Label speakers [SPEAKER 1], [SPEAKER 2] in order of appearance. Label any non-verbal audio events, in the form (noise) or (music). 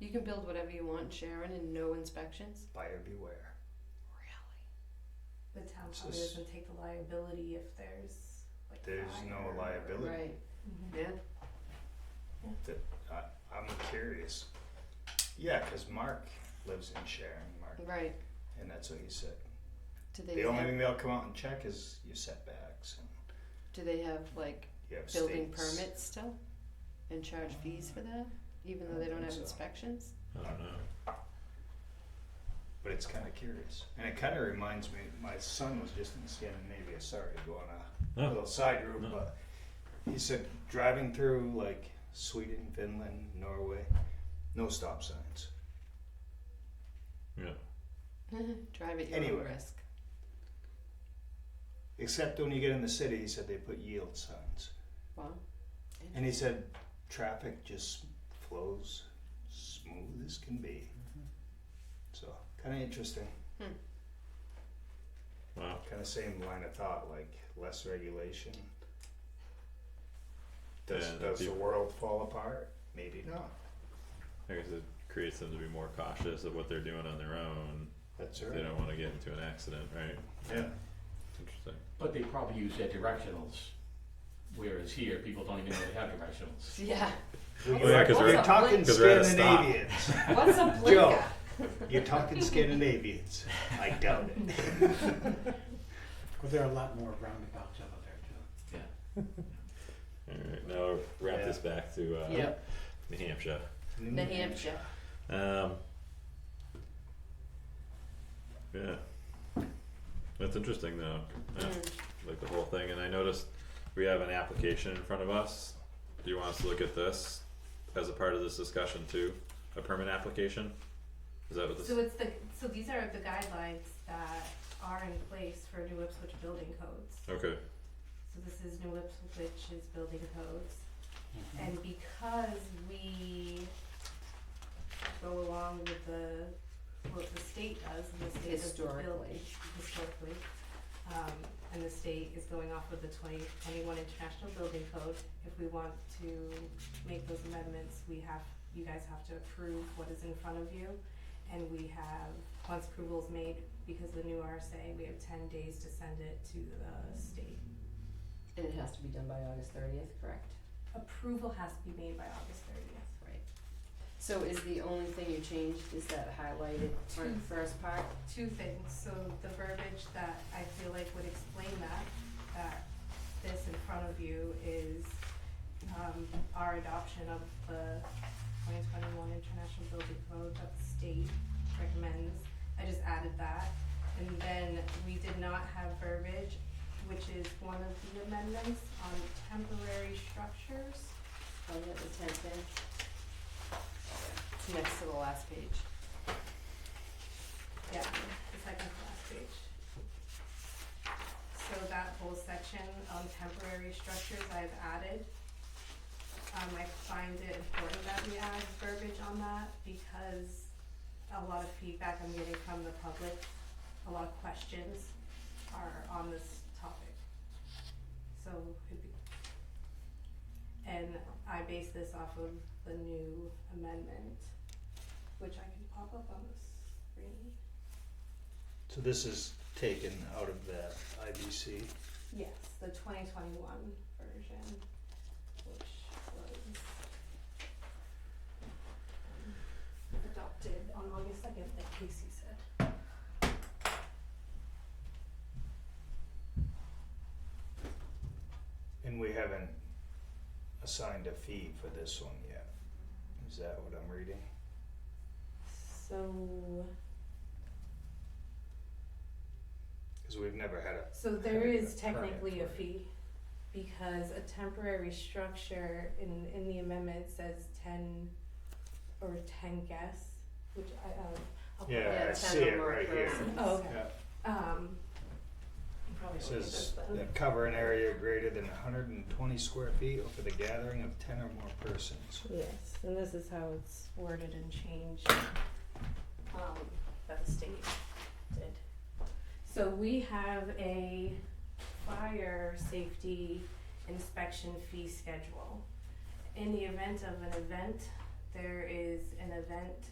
[SPEAKER 1] You can build whatever you want in Sharon and no inspections.
[SPEAKER 2] buyer beware.
[SPEAKER 1] Really?
[SPEAKER 3] The town
[SPEAKER 2] It's
[SPEAKER 3] probably
[SPEAKER 2] just-
[SPEAKER 3] doesn't take the liability if there's like
[SPEAKER 2] There's
[SPEAKER 3] fire
[SPEAKER 2] no
[SPEAKER 3] or-
[SPEAKER 2] liability.
[SPEAKER 1] Right.
[SPEAKER 3] Mhm.
[SPEAKER 1] Yeah.
[SPEAKER 2] I, I'm curious. Yeah, 'cause Mark lives in Sharon, Mark,
[SPEAKER 1] Right.
[SPEAKER 2] and that's what he said.
[SPEAKER 1] Do they
[SPEAKER 2] The only
[SPEAKER 1] have,
[SPEAKER 2] thing they'll come out and check is your setbacks and
[SPEAKER 1] do they have like
[SPEAKER 2] you have
[SPEAKER 1] building
[SPEAKER 2] states.
[SPEAKER 1] permits still? And charge fees for that, even though they don't have
[SPEAKER 2] So.
[SPEAKER 1] inspections? (laughs)
[SPEAKER 4] I don't know.
[SPEAKER 2] But it's kind of curious, and it kind of reminds me. My son was just in Scandinavia. Sorry to go on a
[SPEAKER 4] No,
[SPEAKER 2] little side room,
[SPEAKER 4] No.
[SPEAKER 2] but he said driving through like Sweden, Finland, Norway, no stop signs.
[SPEAKER 4] yeah.
[SPEAKER 1] Drive at your own
[SPEAKER 2] Anyway.
[SPEAKER 1] risk.
[SPEAKER 2] Except when you get in the city, he said they put yield signs.
[SPEAKER 1] (laughs) Wow.
[SPEAKER 2] And he said traffic just flows smooth as can be. So kind of interesting.
[SPEAKER 4] Wow.
[SPEAKER 2] Kind of same line of thought, like less regulation. Does,
[SPEAKER 4] Yeah, that'd
[SPEAKER 2] does
[SPEAKER 4] be-
[SPEAKER 2] the world fall apart? Maybe not.
[SPEAKER 4] I guess it creates them to be more cautious of what they're doing on their own.
[SPEAKER 2] That's
[SPEAKER 4] They
[SPEAKER 2] right.
[SPEAKER 4] don't want to get into an accident, right?
[SPEAKER 2] Yeah.
[SPEAKER 4] Interesting.
[SPEAKER 5] But they probably use their directionals, whereas here, people don't even know they have directionals.
[SPEAKER 1] Yeah.
[SPEAKER 4] Well, yeah, 'cause
[SPEAKER 2] you're
[SPEAKER 4] we're-
[SPEAKER 2] talking
[SPEAKER 4] (laughs) 'cause we're at a stop.
[SPEAKER 2] Scandinavians.
[SPEAKER 1] What's a
[SPEAKER 2] Joe,
[SPEAKER 1] blinker?
[SPEAKER 2] you're
[SPEAKER 4] (laughs)
[SPEAKER 2] talking Scandinavians. I doubt it.
[SPEAKER 6] Well, there are a lot more roundabouts out there too.
[SPEAKER 5] Yeah.
[SPEAKER 4] Alright, now wrap this back to uh
[SPEAKER 1] Yep.
[SPEAKER 4] New Hampshire.
[SPEAKER 1] New Hampshire.
[SPEAKER 4] Um Yeah. That's interesting though. Yeah,
[SPEAKER 1] Mm.
[SPEAKER 4] Like the whole thing, and I noticed we have an application in front of us. Do you want us to look at this as a part of this discussion too? A permit application? Is that what this?
[SPEAKER 3] So it's the, so these are the guidelines that are in place for New Ipswich building codes.
[SPEAKER 4] Okay,
[SPEAKER 3] So this is New Ipswich's building codes. And because we go along with the, what the state does, and the state does the
[SPEAKER 1] Historically.
[SPEAKER 3] building, historically. Um, and the state is going off with the twenty twenty-one International Building Code. If we want to make those amendments, we have, you guys have to approve what is in front of you. And we have, once approval is made, because of the new RSA, we have ten days to send it to the state.
[SPEAKER 1] And it has to be done by August thirtieth, correct?
[SPEAKER 3] Approval has to be made by August thirtieth.
[SPEAKER 1] Right. So is the only thing you changed is that highlighted part,
[SPEAKER 3] Two.
[SPEAKER 1] first part?
[SPEAKER 3] two things, so the verbiage that I feel like would explain that, that this in front of you is, um, our adoption of the twenty twenty-one International Building Code that the state recommends, I just added that. And then we did not have verbiage, which is one of the amendments on temporary structures.
[SPEAKER 1] Oh, yeah, the tenth thing. It's next to the last page.
[SPEAKER 3] Yeah, the second to last page. So that whole section on temporary structures I've added. Um, I find it important that we add verbiage on that because a lot of feedback I'm getting from the public, a lot of questions are on this topic. So it'd be. And I base this off of the new amendment, which I can pop up on the screen.
[SPEAKER 2] So this is taken out of that IBC.
[SPEAKER 3] Yes, the twenty twenty-one version, which was um, adopted on August second, like Casey said.
[SPEAKER 2] And we haven't assigned a fee for this one yet. Is that what I'm reading?
[SPEAKER 3] So,
[SPEAKER 2] Because we've never had a,
[SPEAKER 3] so there is
[SPEAKER 2] Permit,
[SPEAKER 3] technically a
[SPEAKER 2] right.
[SPEAKER 3] fee, because a temporary structure in, in the amendment says ten or ten guests, which I, um, I'll put
[SPEAKER 2] Yeah, I
[SPEAKER 3] that-
[SPEAKER 2] see it right here.
[SPEAKER 3] Oh, okay,
[SPEAKER 2] yeah,
[SPEAKER 3] um, I'm probably
[SPEAKER 2] it
[SPEAKER 3] looking
[SPEAKER 2] says
[SPEAKER 3] at this then.
[SPEAKER 2] that cover an area greater than hundred and twenty square feet or for the gathering of ten or more persons.
[SPEAKER 3] Yes, and this is how it's worded and changed, um, that the state did. So we have a fire safety inspection fee schedule. In the event of an event, there is an event